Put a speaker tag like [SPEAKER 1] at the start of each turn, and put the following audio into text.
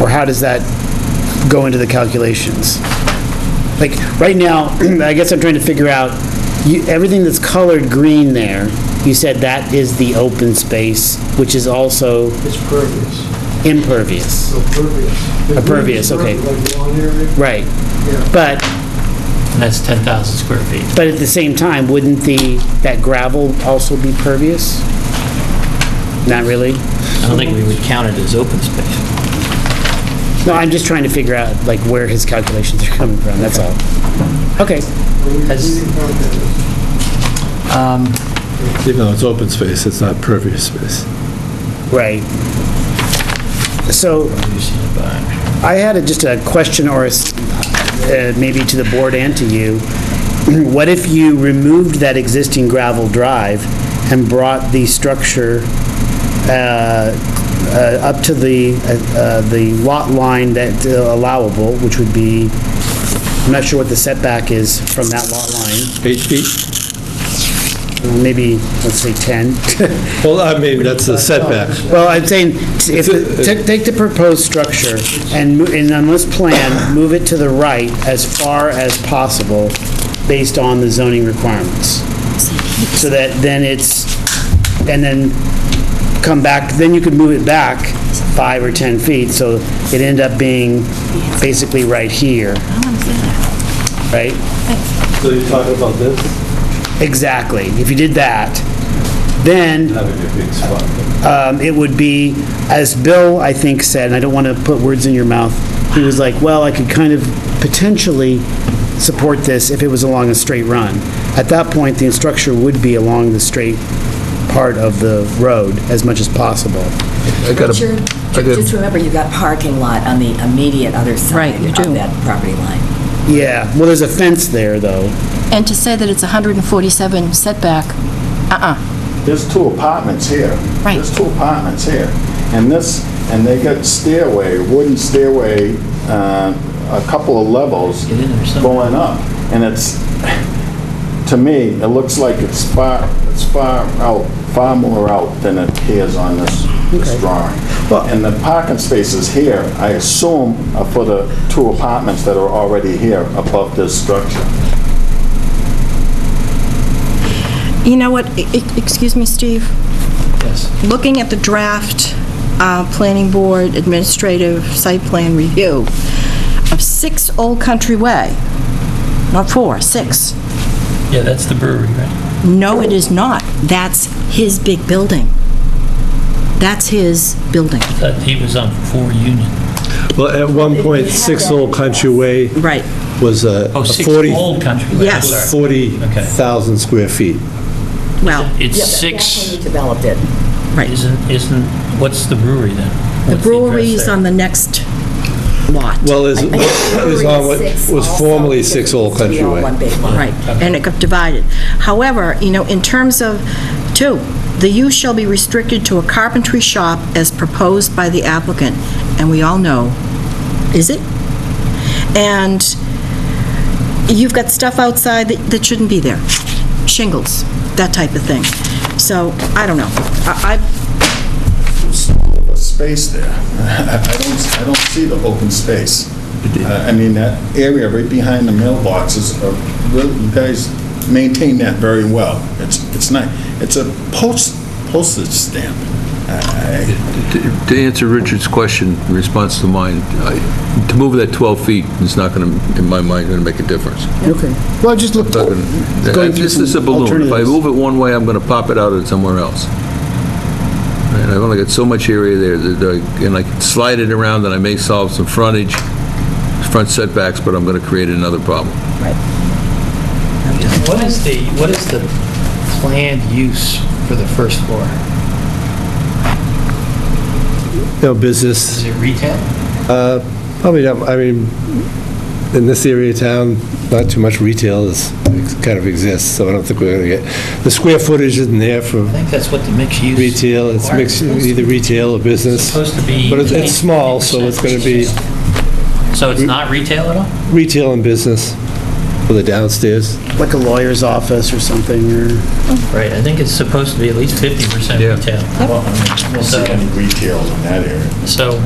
[SPEAKER 1] Or how does that go into the calculations? Like, right now, I guess I'm trying to figure out, you, everything that's colored green there, you said that is the open space, which is also
[SPEAKER 2] It's pervious,
[SPEAKER 1] impervious.
[SPEAKER 2] so pervious. The
[SPEAKER 1] A pervious,
[SPEAKER 2] green is
[SPEAKER 1] okay.
[SPEAKER 2] Like lawn area,
[SPEAKER 1] Right.
[SPEAKER 2] yeah.
[SPEAKER 1] But,
[SPEAKER 3] And that's 10,000 square feet.
[SPEAKER 1] but at the same time, wouldn't the, that gravel also be pervious? Not really?
[SPEAKER 3] I don't think we would count it as open space.
[SPEAKER 1] No, I'm just trying to figure out, like, where his calculations are coming from, that's all. Okay,
[SPEAKER 2] When you- when
[SPEAKER 3] Has-
[SPEAKER 2] you count that,
[SPEAKER 4] Even though it's open space, it's not pervious space.
[SPEAKER 1] right. So, I had a- just a question or a s- uh, maybe to the board and to you. What if you removed that existing gravel drive and brought the structure uh, uh, up to the, uh, uh, the lot line that's allowable, which would be, I'm not sure what the setback is from that lot line,
[SPEAKER 4] Eight feet?
[SPEAKER 1] maybe, let's say 10.
[SPEAKER 4] Well, I mean, that's the setback.
[SPEAKER 1] Well, I'm saying, if, ta- take the proposed structure and, mo- and on this plan, move it to the right as far as possible based on the zoning requirements. So that then it's, and then come back, then you could move it back five or 10 feet, so it end up being basically right here, right?
[SPEAKER 4] So you're talking about this?
[SPEAKER 1] Exactly. If you did that, then
[SPEAKER 4] Having a big spot.
[SPEAKER 1] um, it would be, as Bill, I think, said, and I don't want to put words in your mouth, he was like, well, I could kind of potentially support this if it was along a straight run. At that point, the structure would be along the straight part of the road as much as possible.
[SPEAKER 5] I got
[SPEAKER 6] But you're-
[SPEAKER 5] a, I got
[SPEAKER 6] Just
[SPEAKER 5] a-
[SPEAKER 6] remember, you've got parking lot on the immediate other side
[SPEAKER 7] Right, you do.
[SPEAKER 6] of that property line.
[SPEAKER 1] Yeah, well, there's a fence there, though.
[SPEAKER 7] And to say that it's 147 setback, uh-uh.
[SPEAKER 8] There's two apartments here.
[SPEAKER 7] Right.
[SPEAKER 8] There's two apartments here. And this, and they got stairway, wooden stairway, uh, a couple of levels
[SPEAKER 3] Get in there somehow.
[SPEAKER 8] going up. And it's, to me, it looks like it's far, it's far out, far more out than it appears on this this drawing.
[SPEAKER 1] Well-
[SPEAKER 8] And the parking spaces here, I assume, are for the two apartments that are already here above this structure.
[SPEAKER 9] You know what, e- e- excuse me, Steve,
[SPEAKER 3] Yes.
[SPEAKER 9] looking at the draft uh, Planning Board Administrative Site Plan Review of 6 Old Country Way, not 4, 6.
[SPEAKER 3] Yeah, that's the brewery, right?
[SPEAKER 9] No, it is not. That's his big building. That's his building.
[SPEAKER 3] That he was on 4 Union.
[SPEAKER 4] Well, at one point, Six Old Country Way
[SPEAKER 9] Right.
[SPEAKER 4] was uh, a
[SPEAKER 3] Oh,
[SPEAKER 4] a
[SPEAKER 3] 6
[SPEAKER 4] 40
[SPEAKER 3] Old Country Way.
[SPEAKER 9] Yes.
[SPEAKER 3] sorry.
[SPEAKER 4] 40,000 square feet.
[SPEAKER 9] Well,
[SPEAKER 3] It's
[SPEAKER 6] Yeah, but That's when
[SPEAKER 3] 6,
[SPEAKER 6] you developed it.
[SPEAKER 9] right.
[SPEAKER 3] isn't, isn't, what's the brewery then?
[SPEAKER 9] The
[SPEAKER 3] What's address
[SPEAKER 9] brewery is
[SPEAKER 3] there?
[SPEAKER 9] on the next lot.
[SPEAKER 4] Well, is, is on what
[SPEAKER 6] Six
[SPEAKER 4] was
[SPEAKER 6] also,
[SPEAKER 4] formerly
[SPEAKER 6] because
[SPEAKER 4] Six
[SPEAKER 6] it
[SPEAKER 4] Old
[SPEAKER 6] used to be
[SPEAKER 4] Country
[SPEAKER 6] all
[SPEAKER 4] Way.
[SPEAKER 6] one big lot.
[SPEAKER 9] Right, and it got divided. However, you know, in terms of, two, the use shall be restricted to a carpentry shop as proposed by the applicant, and we all know, is it? And you've got stuff outside that that shouldn't be there, shingles, that type of thing. So, I don't know. I, I-
[SPEAKER 8] a space there. I don't, I don't see the open space. Uh, I mean, that area right behind the mailboxes, are really- you guys maintain that very well. It's, it's not, it's a post, postage stamp. Uh, I-
[SPEAKER 5] to to answer Richard's question, in response to mine, I- to move that 12 feet is not going to, in my mind, going to make a difference.
[SPEAKER 1] Okay. Well, just look,
[SPEAKER 5] It's not gonna-
[SPEAKER 1] Going through
[SPEAKER 5] This is a
[SPEAKER 1] some
[SPEAKER 5] balloon. If I
[SPEAKER 1] alternatives.
[SPEAKER 5] move it one way, I'm going to pop it out at somewhere else. And I've only got so much area there that I, and I can slide it around, and I may solve some frontage, front setbacks, but I'm going to create another problem.
[SPEAKER 3] What is the, what is the planned use for the first floor?
[SPEAKER 4] No business,
[SPEAKER 3] Is it retail?
[SPEAKER 4] probably not, I mean, in this area of town, not too much retail is, kind of exists, so I don't think we're going to get, the square footage isn't there for
[SPEAKER 3] I think that's what the mixed use.
[SPEAKER 4] retail, it's mixed,
[SPEAKER 3] requires.
[SPEAKER 4] either retail or business.
[SPEAKER 3] Supposed to be
[SPEAKER 4] But it's- it's small, so it's going to be
[SPEAKER 3] 20%. So it's not retail at all?
[SPEAKER 4] retail and business for the downstairs.
[SPEAKER 1] like a lawyer's office or something, or...
[SPEAKER 3] Right, I think it's supposed to be at least 50%
[SPEAKER 5] Yeah.
[SPEAKER 3] retail.
[SPEAKER 8] I don't see
[SPEAKER 3] So-
[SPEAKER 8] any retail in that area.
[SPEAKER 3] So